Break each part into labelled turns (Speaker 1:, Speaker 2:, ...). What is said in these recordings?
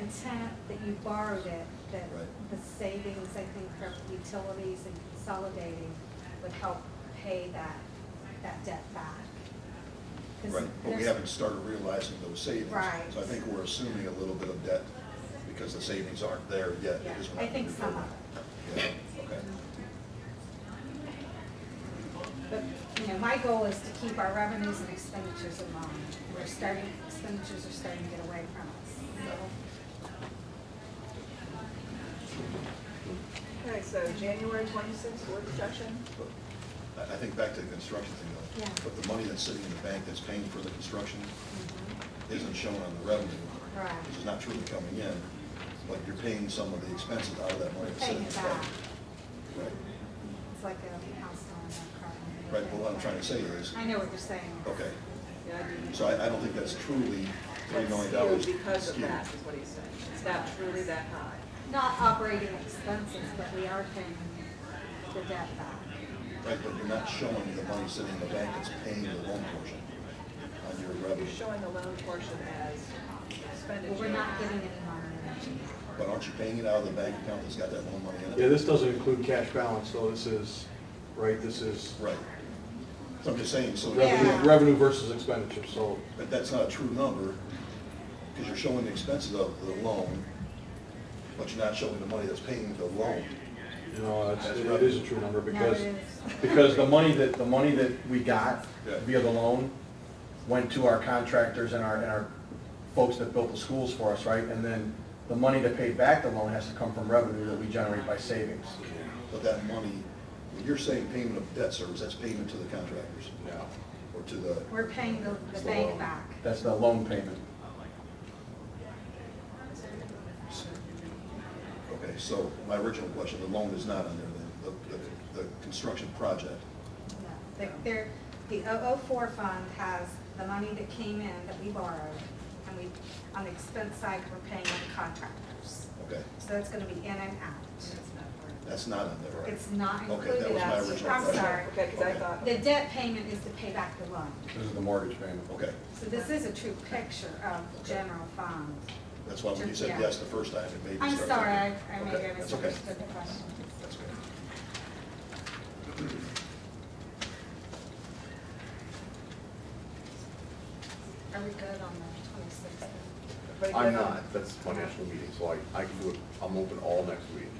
Speaker 1: intent that you borrowed it, that
Speaker 2: Right.
Speaker 1: the savings, I think, from utilities and consolidating would help pay that, that debt back. 'Cause
Speaker 2: Right, but we
Speaker 1: there's-
Speaker 2: haven't started realizing those savings.
Speaker 1: Right.
Speaker 2: So I think we're assuming a little bit of debt because the savings aren't there yet.
Speaker 1: Yeah,
Speaker 2: is what
Speaker 1: I
Speaker 2: I'm
Speaker 1: think some
Speaker 2: referring.
Speaker 1: of it.
Speaker 2: Yeah, okay.
Speaker 1: But, you know, my goal is to keep our revenues and expenditures in line. We're starting, expenditures are starting to get away from us.
Speaker 3: Okay, so January twenty-sixth, work session,
Speaker 2: But I, I think back to the construction thing though.
Speaker 1: Yeah.
Speaker 2: But the money that's sitting in the bank that's paying for the construction
Speaker 1: Mm-hmm.
Speaker 2: isn't shown on the revenue.
Speaker 1: Right.
Speaker 2: Which is not truly coming in, but you're paying some of the expenses out of that
Speaker 1: We're
Speaker 2: money that's
Speaker 1: paying
Speaker 2: sitting in
Speaker 1: it
Speaker 2: the
Speaker 1: back.
Speaker 2: bank. Right,
Speaker 1: It's like a house on a car.
Speaker 2: right, but what I'm trying to say is, Oh,
Speaker 1: I know what you're saying.
Speaker 2: okay,
Speaker 3: yeah, I do.
Speaker 2: so I, I don't think that's truly three million
Speaker 3: That's
Speaker 2: dollars.
Speaker 3: skewed because of that, is what he's saying, it's not truly that high.
Speaker 1: Not operating expenses, but we are paying the debt back.
Speaker 2: Right, but you're not showing the money sitting in the bank that's paying the loan portion on your
Speaker 3: You're
Speaker 2: revenue.
Speaker 3: showing the loan portion as expenditure.
Speaker 1: But we're not getting any money.
Speaker 2: But aren't you paying it out of the bank account that's got that loan money in it?
Speaker 4: Yeah, this doesn't include cash balance, so this is, right, this is
Speaker 2: Right. So I'm just saying, so,
Speaker 1: Yeah.
Speaker 4: revenue revenue versus expenditure, so,
Speaker 2: but that's not a true number, because you're showing the expenses of the loan, but you're not showing the money that's paying the loan.
Speaker 4: you know, it's- it is a true number because,
Speaker 1: No, it
Speaker 5: Because the money that, the money that we got
Speaker 2: Yeah.
Speaker 5: via the loan went to our contractors and our, and our folks that built the schools for us, right? And then the money to pay back the loan has to come from revenue that we generate by savings.
Speaker 2: But that money, when you're saying payment of debt service, that's payment to the contractors,
Speaker 5: No.
Speaker 2: or to the,
Speaker 1: We're paying the, the bank back.
Speaker 5: That's the loan payment.
Speaker 2: okay, so my original question, the loan is not on there, then, the, the, the construction project.
Speaker 1: No, they- They're, the 004 fund has the money that came in that we borrowed, and we, on the expense side, we're paying the contractors.
Speaker 2: Okay,
Speaker 1: So that's gonna be in and out.
Speaker 2: that's not on there, right?
Speaker 1: It's not
Speaker 2: Okay, that was my
Speaker 1: included.
Speaker 2: original
Speaker 1: I'm
Speaker 2: question.
Speaker 1: sorry.
Speaker 3: Okay, because I thought,
Speaker 1: The debt payment is to pay back the loan.
Speaker 5: This is the mortgage payment.
Speaker 2: Okay,
Speaker 1: So this is a true picture of
Speaker 2: Okay.
Speaker 1: general fund.
Speaker 2: that's why when you said
Speaker 1: Yeah.
Speaker 2: yes the first time, it made me
Speaker 1: I'm
Speaker 2: start
Speaker 1: sorry, I
Speaker 2: thinking.
Speaker 1: I
Speaker 2: Okay,
Speaker 1: maybe I
Speaker 2: that's okay.
Speaker 1: misunderstood the question.
Speaker 2: That's okay.
Speaker 1: Are we good on the
Speaker 3: but
Speaker 6: I'm
Speaker 3: again,
Speaker 6: not, that's financial meeting, so I, I can do it, I'm open all next week.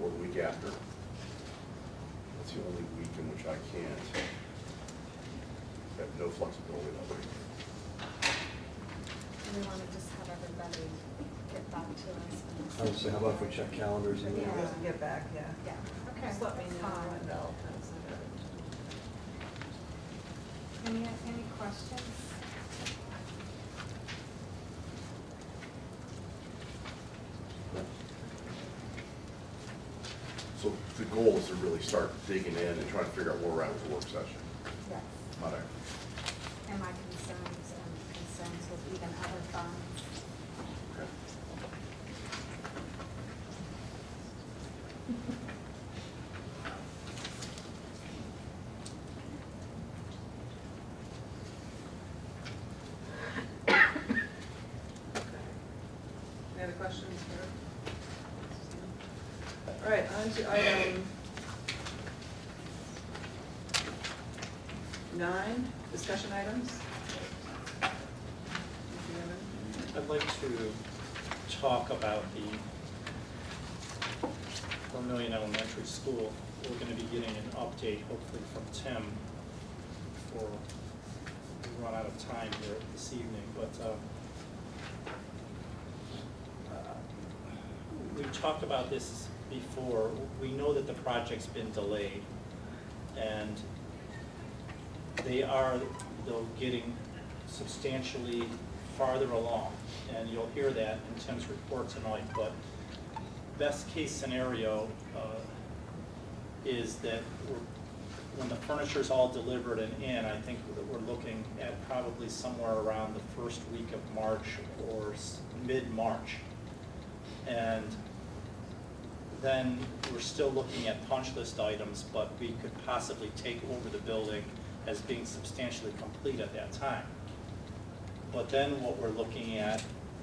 Speaker 6: Or the week after. That's the only week in which I can't. I have no flexibility that week.
Speaker 1: 26th? Do we want to just have everybody get back to
Speaker 4: I would
Speaker 1: us?
Speaker 4: say, how about if we check calendars and
Speaker 3: Maybe he
Speaker 1: Yeah.
Speaker 3: doesn't get back, yeah.
Speaker 1: Yeah, okay.
Speaker 3: Just let me
Speaker 1: that's
Speaker 3: know,
Speaker 1: fine.
Speaker 3: and I'll.
Speaker 1: Any, any questions?
Speaker 6: So the goal is to really start digging in and trying to figure out where we're at with the work session.
Speaker 1: Yes.
Speaker 6: Not our-
Speaker 1: And my concerns, um, concerns with even other funds.
Speaker 6: okay.
Speaker 3: Any other questions for? All right, on to item nine, discussion items.
Speaker 7: I'd like to talk about the Vermillion Elementary School. We're gonna be getting an update hopefully from Tim before we run out of time here this evening, but, uh, uh, we talked about this before. We know that the project's been delayed, and they are, though, getting substantially farther along. And you'll hear that in Tim's report tonight, but best-case scenario uh, is that we're- when the furniture's all delivered and in, I think that we're looking at probably somewhere around the first week of March or s- mid-March. And then we're still looking at punch list items, but we could possibly take over the building as being substantially complete at that time. But then what we're looking at